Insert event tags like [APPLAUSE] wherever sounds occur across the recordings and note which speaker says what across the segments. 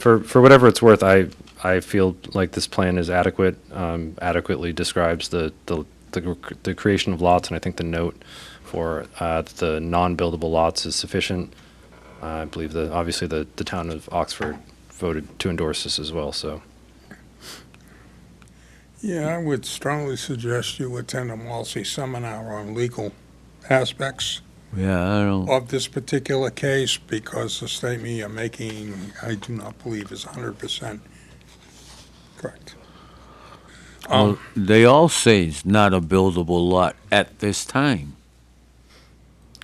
Speaker 1: for, for whatever it's worth, I, I feel like this plan is adequate, um, adequately describes the, the, the, cr- the creation of lots, and I think the note for, uh, the non-buildable lots is sufficient. I believe the, obviously, the, the town of Oxford voted to endorse this as well, so.
Speaker 2: Yeah, I would strongly suggest you attend a Walsey seminar on legal aspects
Speaker 3: Yeah, I don't.
Speaker 2: of this particular case because the statement you're making, I do not believe is 100% correct.
Speaker 4: Uh-uh.
Speaker 2: Um,
Speaker 3: They all say it's not a buildable lot at this time.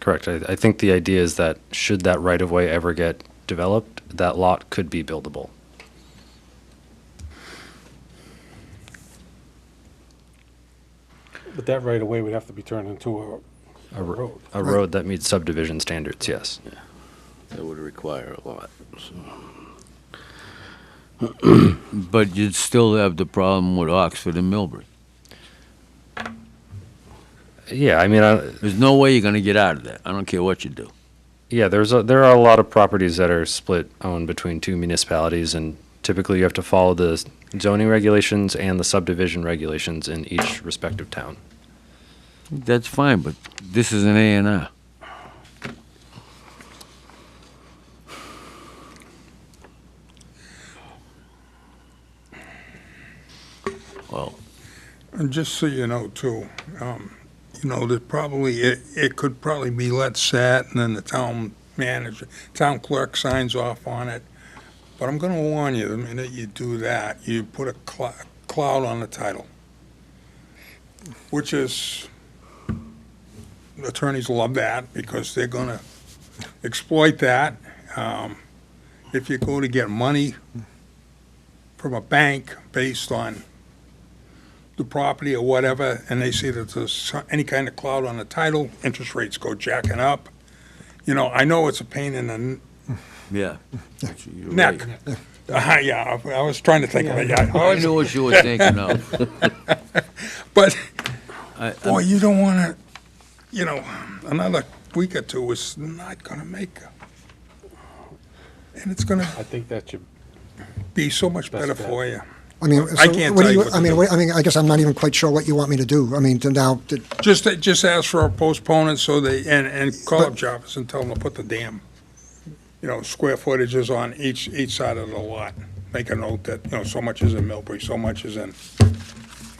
Speaker 1: Correct. I, I think the idea is that should that right of way ever get developed, that lot could be buildable.
Speaker 5: But that right away would have to be turned into
Speaker 1: A,
Speaker 5: a
Speaker 1: ro-
Speaker 5: road.
Speaker 1: a road that meets subdivision standards, yes.
Speaker 4: That would require a lot. so.
Speaker 3: [CLEARS THROAT] But you'd still have the problem with Oxford and Milbury.
Speaker 1: Yeah, I mean, I,
Speaker 3: There's no way you're going to get out of that. I don't care what you do.
Speaker 1: yeah, there's a, there are a lot of properties that are split owned between two municipalities, and typically you have to follow the zoning regulations and the subdivision regulations in each respective town.
Speaker 3: That's fine, but this is an A and R. Well,
Speaker 2: And just so you know too, um, you know, that probably, it, it could probably be let set and then the town manager, town clerk signs off on it. But I'm gonna warn you, the minute you do that, you put a cl- cloud on the title. Which is, attorneys love that because they're gonna exploit that. Um, if you go to get money from a bank based on the property or whatever, and they see that there's so- any kind of cloud on the title, interest rates go jacking up. You know, I know it's a pain in the n-
Speaker 4: [LAUGHS]
Speaker 3: yeah.
Speaker 2: neck. [LAUGHS] Uh, yeah, I I was trying to think of it, yeah. Oh, I
Speaker 3: I
Speaker 2: was-
Speaker 3: knew what you were thinking
Speaker 4: [LAUGHS]
Speaker 3: of.
Speaker 2: But,
Speaker 3: I-
Speaker 2: boy, you don't want to, you know, another week or two is not going to make, and it's going to
Speaker 5: I think that should,
Speaker 2: be so much
Speaker 5: That's
Speaker 2: better
Speaker 5: bad.
Speaker 2: for you.
Speaker 6: I mean,
Speaker 2: I
Speaker 6: so
Speaker 2: can't
Speaker 6: what
Speaker 2: tell
Speaker 6: do
Speaker 2: you
Speaker 6: you,
Speaker 2: what to
Speaker 6: I mean,
Speaker 2: do.
Speaker 6: wait, I mean, I guess I'm not even quite sure what you want me to do. I mean, to now, to-
Speaker 2: Just, just ask for a postponement so they, and, and call up
Speaker 6: But-
Speaker 2: Jarvis and tell them to put the damn, you know, square footages on each, each side of the lot. Make a note that, you know, so much is in Millbury, so much is in,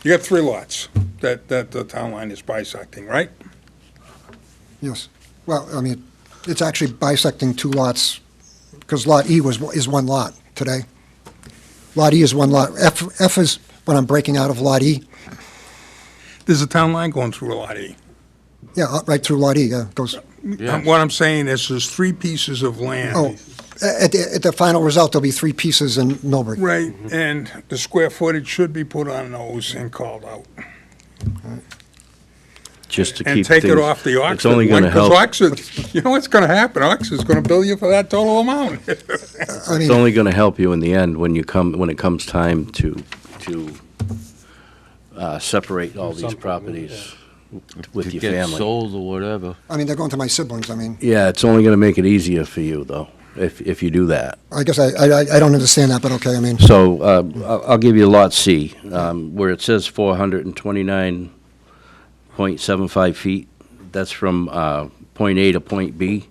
Speaker 2: you got three lots that, that the town line is bisecting, right?
Speaker 6: yes. Well, I mean, it's actually bisecting two lots, because Lot E was, is one lot today. Lot E is one lot. F, F is when I'm breaking out of Lot E.
Speaker 2: There's a town line going through Lot E.
Speaker 6: Yeah, uh, right through Lot E, yeah, goes,
Speaker 3: Yeah.
Speaker 2: What I'm saying is there's three pieces of land.
Speaker 6: oh, at, the- at the final result, there'll be three pieces in Millbury.
Speaker 2: Right, and the square footage should be put on those and called out.
Speaker 4: Just to keep
Speaker 2: and
Speaker 4: things.
Speaker 2: take it off the auction.
Speaker 4: It's only going to
Speaker 2: Because
Speaker 4: help,
Speaker 2: Oxford, you know what's going to happen? Oxford's going to bill you for that total amount.
Speaker 6: I
Speaker 4: it's
Speaker 6: mean,
Speaker 4: only going to help you in the end when you come, when it comes time to, to uh, separate all these
Speaker 5: Something,
Speaker 4: properties with
Speaker 3: to
Speaker 4: your
Speaker 3: get
Speaker 4: family.
Speaker 3: sold or whatever.
Speaker 6: I mean, they're going to my siblings. I mean,
Speaker 4: Yeah, it's only going to make it easier for you, though, if, if you do that.
Speaker 6: I guess I, I, I don't understand that, but okay, I mean,
Speaker 4: So uh, I'll I'll give you Lot C, um, where it says 429.75 feet. That's from uh, point A to point B.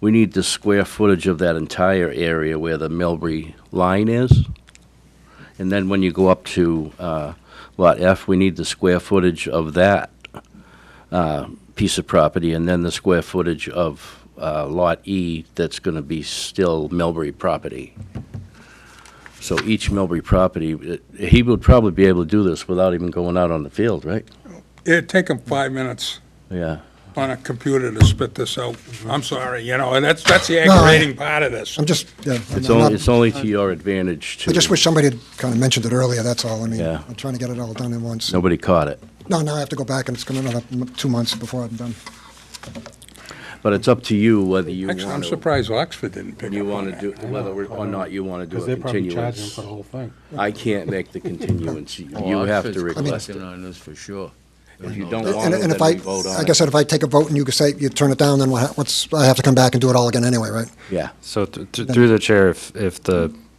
Speaker 4: We need the square footage of that entire area where the Millbury line is. And then when you go up to uh, Lot F, we need the square footage of that uh, piece of property, and then the square footage of uh, Lot E that's going to be still Millbury property. So each Millbury property, uh, he would probably be able to do this without even going out on the field, right?
Speaker 2: It'd take them five minutes
Speaker 4: Yeah.
Speaker 2: on a computer to spit this out. I'm sorry, you know, and that's, that's the aggravating part of this.
Speaker 6: I'm just, yeah. I'm-
Speaker 4: It's
Speaker 6: I'm not-
Speaker 4: only, it's only to your advantage to.
Speaker 6: I just wish somebody had kind of mentioned it earlier, that's all. I mean,
Speaker 4: Yeah.
Speaker 6: I'm trying to get it all done in once.
Speaker 4: Nobody caught it.
Speaker 6: No, now I have to go back, and it's going to another m- two months before I'm done.
Speaker 4: But it's up to you whether you
Speaker 2: Actually, I'm
Speaker 4: want to,
Speaker 2: surprised Oxford didn't pick
Speaker 4: you
Speaker 2: up on
Speaker 4: want to do,
Speaker 2: that.
Speaker 4: whether or not you want to do
Speaker 5: because
Speaker 4: a
Speaker 5: they're probably charging them
Speaker 4: continuance.
Speaker 5: for the whole Oh, thing.
Speaker 4: I can't make the continuance. You
Speaker 3: Oh,
Speaker 4: you have to request it.
Speaker 3: on this for sure.
Speaker 4: If you don't
Speaker 6: And-
Speaker 4: want
Speaker 6: And
Speaker 4: it,
Speaker 6: and
Speaker 4: then
Speaker 6: if I,
Speaker 4: we vote
Speaker 6: I
Speaker 4: on
Speaker 6: guess
Speaker 4: it.
Speaker 6: that if I take a vote and you could say, you turn it down, then what ha- what's, I have to come back and do it all again anyway, right?
Speaker 4: Yeah.
Speaker 1: So th- th- through the chair, if, if the